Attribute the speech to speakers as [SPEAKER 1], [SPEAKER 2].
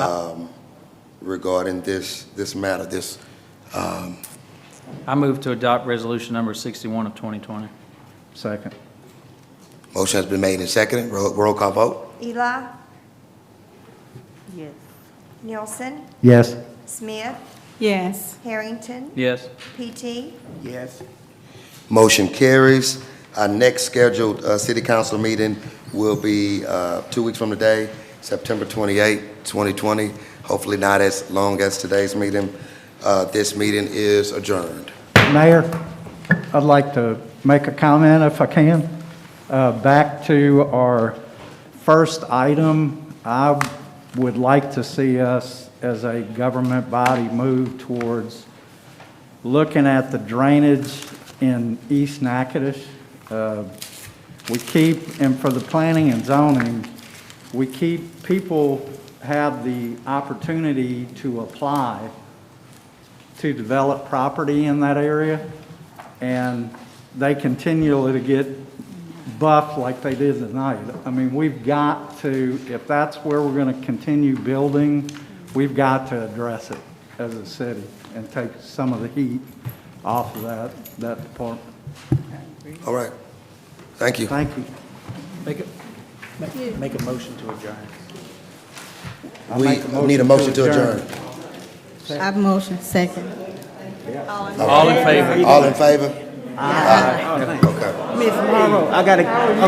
[SPEAKER 1] um, regarding this, this matter, this,
[SPEAKER 2] I move to adopt resolution number 61 of 2020.
[SPEAKER 3] Second.
[SPEAKER 1] motion has been made and seconded, roll, roll call vote?
[SPEAKER 4] Eli,
[SPEAKER 5] Yes.
[SPEAKER 4] Nielsen,
[SPEAKER 3] Yes.
[SPEAKER 4] Smith,
[SPEAKER 5] Yes.
[SPEAKER 4] Harrington,
[SPEAKER 2] Yes.
[SPEAKER 4] PT,
[SPEAKER 3] Yes.
[SPEAKER 1] Motion carries. Our next scheduled, uh, city council meeting will be, uh, two weeks from today, September 28, 2020. Hopefully not as long as today's meeting. Uh, This meeting is adjourned.
[SPEAKER 3] Mayor, I'd like to make a comment if I can. Uh, Back to our first item, I would like to see us as a government body move towards looking at the drainage in East Natchitoches. Uh, We keep, and for the planning and zoning, we keep, people have the opportunity to apply to develop property in that area, and they continually to get buffed like they did tonight. I mean, we've got to, if that's where we're going to continue building, we've got to address it as a city and take some of the heat off of that, that department.
[SPEAKER 1] All right. Thank you.
[SPEAKER 3] Thank you.
[SPEAKER 6] Make a, make- make a motion to adjourn.
[SPEAKER 3] I
[SPEAKER 1] We
[SPEAKER 3] make a
[SPEAKER 1] need a motion to adjourn.
[SPEAKER 5] I motion second.
[SPEAKER 2] All in favor?
[SPEAKER 1] All in favor? Aye. Okay.
[SPEAKER 6] Miss Morrow, I gotta,